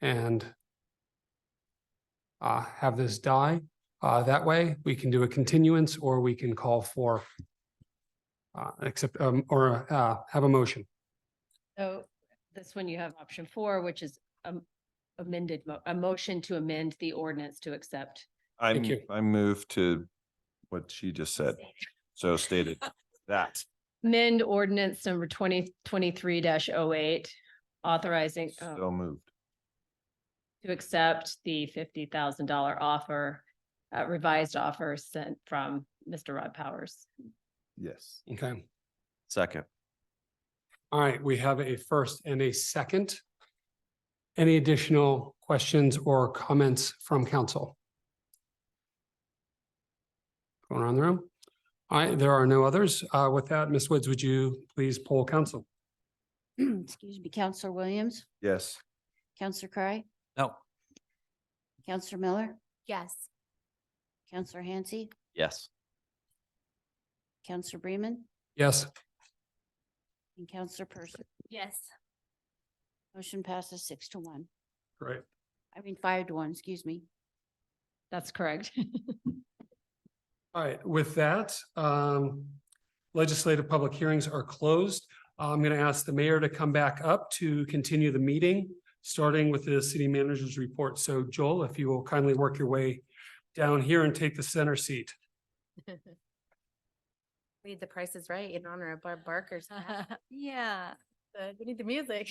and uh, have this die. Uh, that way, we can do a continuance or we can call for uh, accept, um, or, uh, have a motion. So this one you have option four, which is um, amended, mo- a motion to amend the ordinance to accept. Thank I'm, you. I move to what she just said. So stated that. Amend ordinance number twenty twenty-three 8 authorizing um, So moved. to accept the fifty thousand dollar offer, uh, revised offer sent from Mr. Rod Powers. Yes. Okay. Second. All right, we have a first and a second. Any additional questions or comments from council? Going around the room? All right, there are no others. Uh, with that, Ms. Woods, would you please poll council? Excuse me, Counselor Williams, Yes. Counselor Cry, No. Counselor Miller, Yes. Counselor Hansi, Yes. Counselor Bremen, Yes, and Counselor Percy. Yes. Motion passes six to one. great. I mean, five to one, excuse me. That's correct. All right, with that, um, legislative public hearings are closed. I'm going to ask the mayor to come back up to continue the meeting, starting with the city manager's report. So Joel, if you will kindly work your way down here and take the center seat. We need the prices right in honor of Barb Barker's. death. Yeah, but we need the music.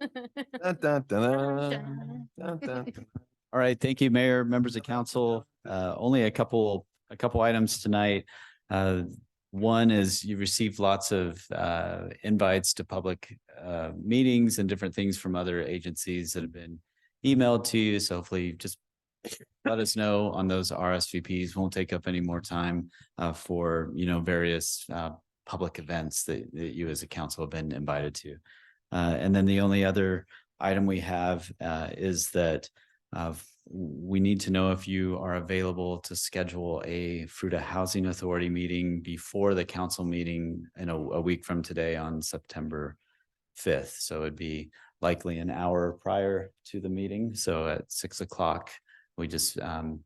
Dun, dun, dun, dun, dun, dun, dun. All right. Thank you, Mayor, members of council. Uh, only a couple, a couple items tonight. Uh, one is you received lots of, uh, invites to public, uh, meetings and different things from other agencies that have been emailed to you. So hopefully just let us know on those RSVPs. Won't take up any more time, uh, for, you know, various, uh, public events that, that you as a council have been invited to. Uh, and then the only other item we have, uh, is that uh, f- we need to know if you are available to schedule a Fruta Housing Authority meeting before the council meeting in a, a week from today on September fifth. So it'd be likely an hour prior to the meeting. So at six o'clock, we just, um,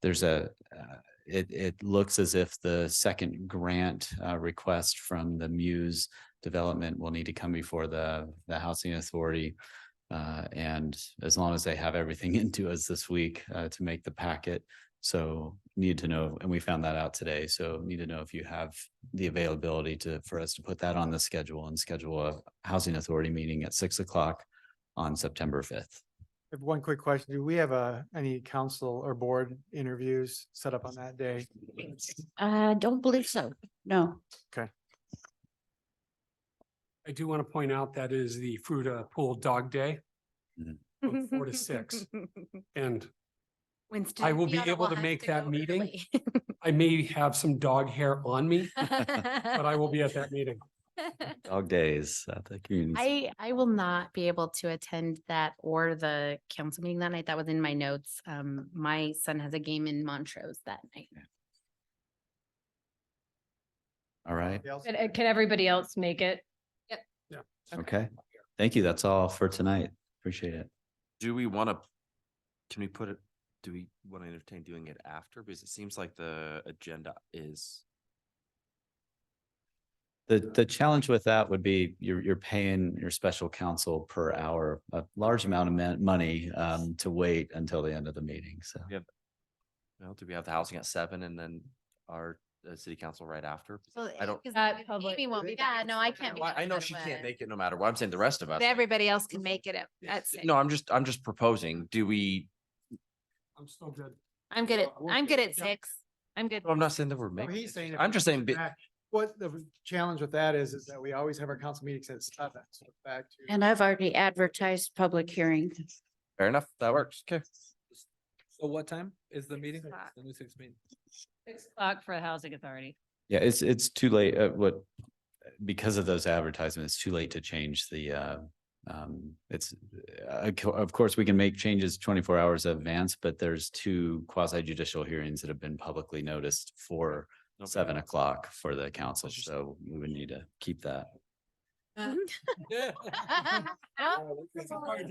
there's a, uh, it, it looks as if the second grant, uh, request from the Muse Development will need to come before the, the Housing Authority. Uh, and as long as they have everything into us this week, uh, to make the packet. So need to know, and we found that out today. So need to know if you have the availability to, for us to put that on the schedule and schedule a housing authority meeting at six o'clock on September fifth. I have One quick question. Do we have uh any council or board interviews set up on that day? I don't believe so. No. I do want to point out that is the Fruta Pool Dog Day from four to six. And Winston. I will be Fiona able to have make that go meeting, early. I may have some dog hair on me, but But I will be at that meeting. Dog days at the community. I, I will not be able to attend that or the council meeting that night. That was in my notes. Um, my son has a game in Montrose that night. All right. Can uh, can everybody else make it? Okay. Thank you. That's all for tonight. Appreciate it. Do we want to, can we put it, do we want to entertain doing it after? Because it seems like the agenda is, The, the challenge with that would be you're, you're paying your special counsel per hour, a large amount of mon- money, um, to wait until the end of the meeting. So. you know, do we have the housing at seven and then our uh, city council right after? Well, I don't, because At if public- Amy won't be. Yeah, Yeah, no, I can't. No, I I know she can't make it no matter what. I'm saying the rest of us. Everybody else can make it at, at six. No, I'm just, I'm just proposing. Do we, I'm still good. I'm good at, I won't I'm be- good at yeah. six. I'm good. No, I'm not saying that we're No, making. he's it. saying if I'm we just saying, but- Back- What the challenge with that is, is that we always have our council meetings at seven, so it's back to. And I've already advertised public hearing. fair enough, that works. Okay. So what time is the meeting? o'clock. The new six meeting? Six o'clock for the housing authority. Yeah, it's, it's too late, uh, what, because of those advertisements, it's too late to change the, uh, um, it's, uh, co- of course, we can make changes twenty-four hours in advance, but there's two quasi judicial hearings that have been publicly noticed for No seven problem. o'clock for the council, That's just- so we would need to keep that. Uh-huh. Yeah. Well,